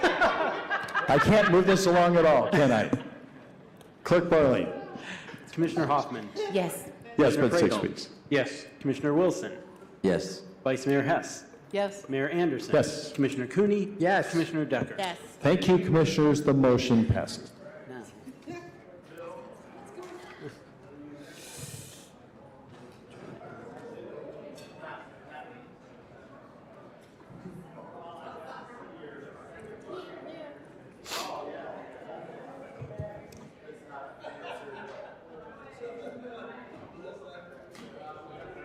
I can't move this along at all, can I? Clerk Borley? Commissioner Hoffman. Yes. Yes, but six Commissioner Pradel. weeks. Yes. Commissioner Wilson. Yes. Vice Mayor Hess. Yes. Mayor Anderson. Yes. Commissioner Cooney. Yes. Commissioner Decker. Yes. Thank you, Commissioners. The motion passes.